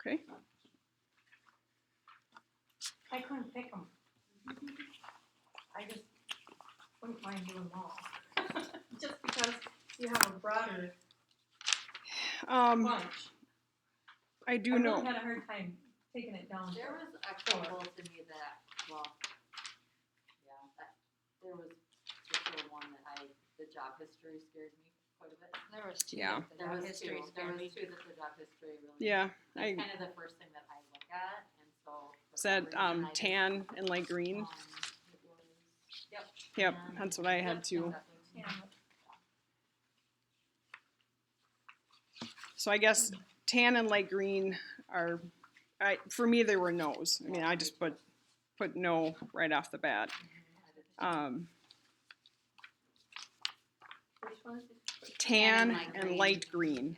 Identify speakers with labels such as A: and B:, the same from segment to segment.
A: Okay,
B: I couldn't pick them. I just wouldn't mind doing them all. Just because you have a broader
A: um,
B: bunch.
A: I
B: I
A: Um, do
B: really
A: know,
B: had a hard time taking it down.
C: There was a couple to me that, well, yeah, that, there was for sure one that I, the job history scared me quite a bit.
D: There was two.
A: Yeah.
C: There was two, there
D: scared
C: was
D: me.
C: two that the job history really.
A: yeah,
C: That's
A: I
C: kind of the first thing that I look at, and so. for
A: said,
C: some reason
A: um,
C: I just,
A: tan and light green.
C: um, it was- Yep.
A: Yep,
C: tan.
A: that's what I
C: Yep,
A: had too.
C: exactly.
B: Yeah,
A: So I guess tan and light green are, I, for me, they were no's. I mean, I just put, put no right off the bat.
C: I did too.
A: Um,
B: Which ones? did-
D: Tan and
A: tan
D: light
A: and
D: green.
A: light green.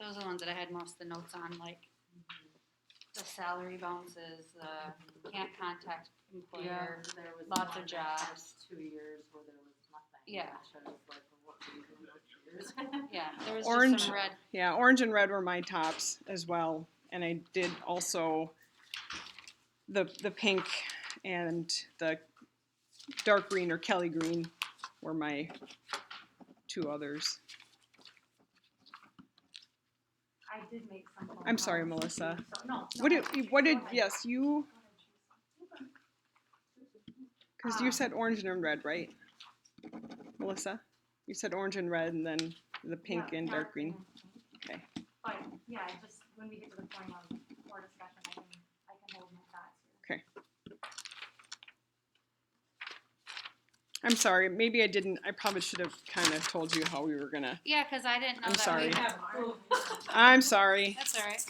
D: Those are the ones that I had most of the notes on, like
C: Mm-hmm.
D: the salary bounces, uh, can't contact
C: Yeah,
D: employer.
C: there was
D: lots
C: one
D: of
C: that had
D: jobs.
C: Two years where there was nothing.
D: Yeah.
C: which I was like, well, what were you doing those two years?
D: Yeah, there was
A: Orange.
D: just some red.
A: Yeah, orange and red were my tops as well, and I did also the the pink and the dark green or Kelly green were my two others.
B: I did make some. phone
A: I'm sorry,
B: calls.
A: Melissa.
B: So- No.
A: What
B: no.
A: did what did
B: Go ahead.
A: yes you because you said orange and red right, Melissa? You said orange and red, and then the pink
B: Yeah,
A: and dark green.
B: and
A: Okay.
B: pink. But, yeah, I just, when we get to the point of more discussion, I can, I can hold my thoughts here.
A: I'm sorry, maybe I didn't. I probably should have kind of told you how we were gonna.
D: Yeah, because I didn't know
A: I'm
D: that
A: sorry.
D: we
B: We
D: had.
B: have our-
A: I'm sorry,
D: That's all right.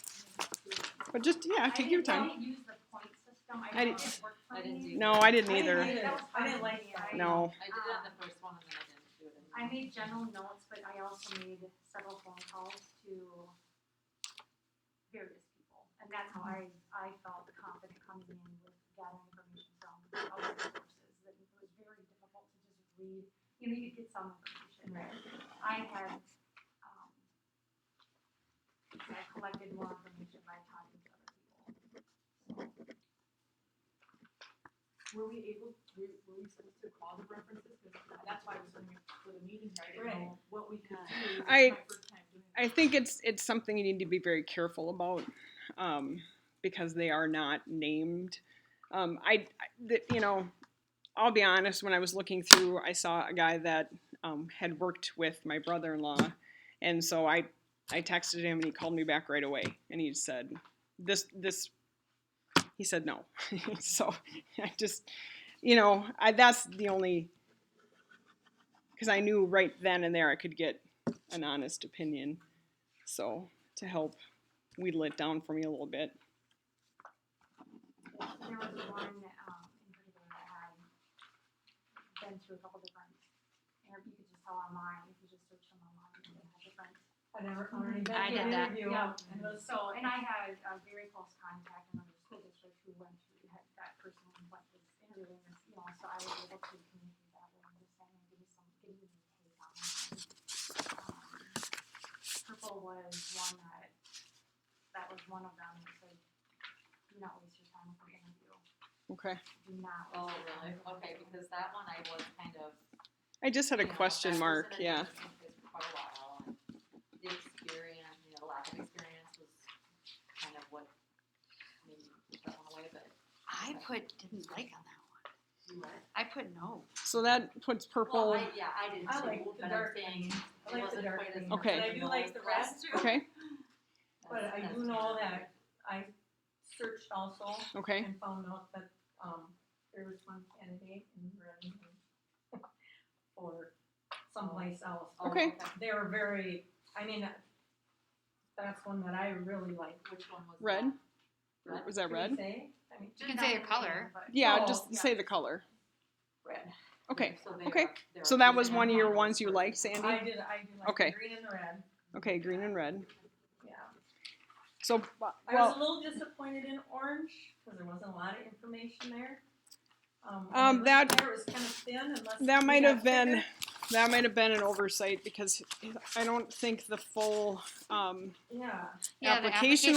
A: but just yeah, take your
B: didn't
A: time.
B: really use the point system. I
A: I
B: didn't.
A: didn't-
B: it worked for
C: I didn't
B: me.
C: do
A: No, I didn't
B: I didn't
A: either.
B: either. That was
C: I didn't
B: part of
C: like
B: the
C: that.
B: idea.
A: No.
C: I did it on the first one and then I didn't do
B: I
C: it. anymore.
B: made general notes, but I also made several phone calls to various people. And that's how I, I felt confident coming in with gathering information from other sources, that it was very difficult to just read. You know, you could get some information, right? I had, um, I collected more information by talking to other people.
E: Were we able, were, were we supposed to call the references? 'Cause that's why I was wondering if for the meeting, here, I didn't know what we could do. It was
A: I-
E: my first time doing
A: I
E: this.
A: think it's it's something you need to be very careful about um, because they are not named. Um, I, I the, you know, I'll be honest. When I was looking through, I saw a guy that um, had worked with my brother-in-law, and so I I texted him and he called me back right away and he said this this he said no. so I just you know I, that's the only because I knew right then and there I could get an honest opinion. So to help wheedle it down for me a little bit.
B: There was one, um, in particular that had been through a couple different, or you could just tell online, if you just search them online, they had different. Mm-hmm.
E: And I already did
D: I did
E: the
D: that.
E: interview.
B: Yeah, and it was so, and I had a very close contact in another school district who went through, had that person who went through this interview, and, you know, so I was able to communicate that with them, just saying, give me some, give me your take on it. Um, Purple was one that, that was one of them, that said, do not waste your time with an interview.
A: Okay.
B: Do not.
C: Oh,
B: waste your
C: really?
B: time.
C: Okay, because that one I was kind of.
A: I just had a
C: you know,
A: question
C: that was
A: mark.
C: in a
A: Yeah.
C: different place for Quite a while, and the experience, you know, lack of experience was kind of what maybe put that one away, but
D: I put didn't like on that
C: you were.
D: one. I put no.
A: So that puts purple.
C: Well, I, yeah, I did
E: I
C: too,
E: like the
C: but I'm
E: dark
C: saying
E: green. I
C: it
E: like the
C: wasn't
E: dark
C: quite as.
E: green,
A: Okay.
E: but I do like the rest,
A: okay.
E: but I do know that I searched also
A: Okay.
E: and found out that, um, there was one candidate in Renton or someplace else.
A: Oh. Okay.
E: They were very, I mean, that's one that I really like.
C: Which one was?
A: Red?
C: that?
A: Or Was that red?
E: I mean,
D: You can say your color.
A: Yeah,
E: Oh,
A: just
E: yeah.
A: say the color.
E: red.
A: Okay.
C: So they
A: okay.
C: are- they are
A: So that was
C: using
A: one of your
C: online
A: ones you
C: resources.
A: liked, Sandy?
E: I did, I did like
A: Okay.
E: the green and the red,
A: Okay, green and red.
E: yeah.
A: So bu-
E: I was a
A: well,
E: little disappointed in orange, cause there wasn't a lot of information there. Um, when I
A: Um,
E: looked
A: that-
E: there, it was kind of thin unless.
A: that
E: we
A: might have
E: got
A: been
E: bigger.
A: that might have been an oversight because I don't think the full um,
E: Yeah.
D: Yeah, the
A: application